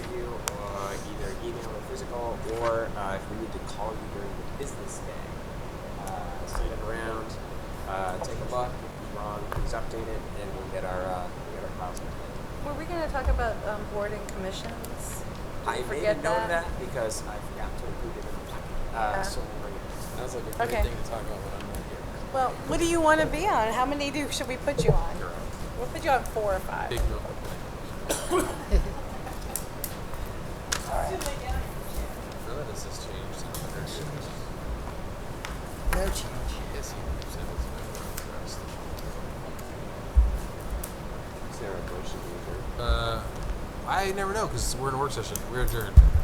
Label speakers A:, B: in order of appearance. A: or uh, if we need to call you during the business day. Uh, send it around, uh, take a look, if it's wrong, please update it, and we'll get our, uh, we'll get our files updated.
B: Were we going to talk about um, board and commissions?
A: I made
B: forget
A: a note of
B: that?
A: that because I forgot to include it in the packet.
B: Ah.
A: Uh, so we'll bring it.
C: Sounds like a great
B: Okay.
C: thing to talk about when I'm not here.
B: Well, what do you want to be on? How many do should we put you on?
A: You're up.
B: We'll put you on four or five.
C: Big no complaint. None of this has changed in a hundred years.
D: No change.
C: Yes, you said it's been addressed.
A: Is there a motion to adjourn?
C: Uh, I never know because we're in a work session. We're adjourned.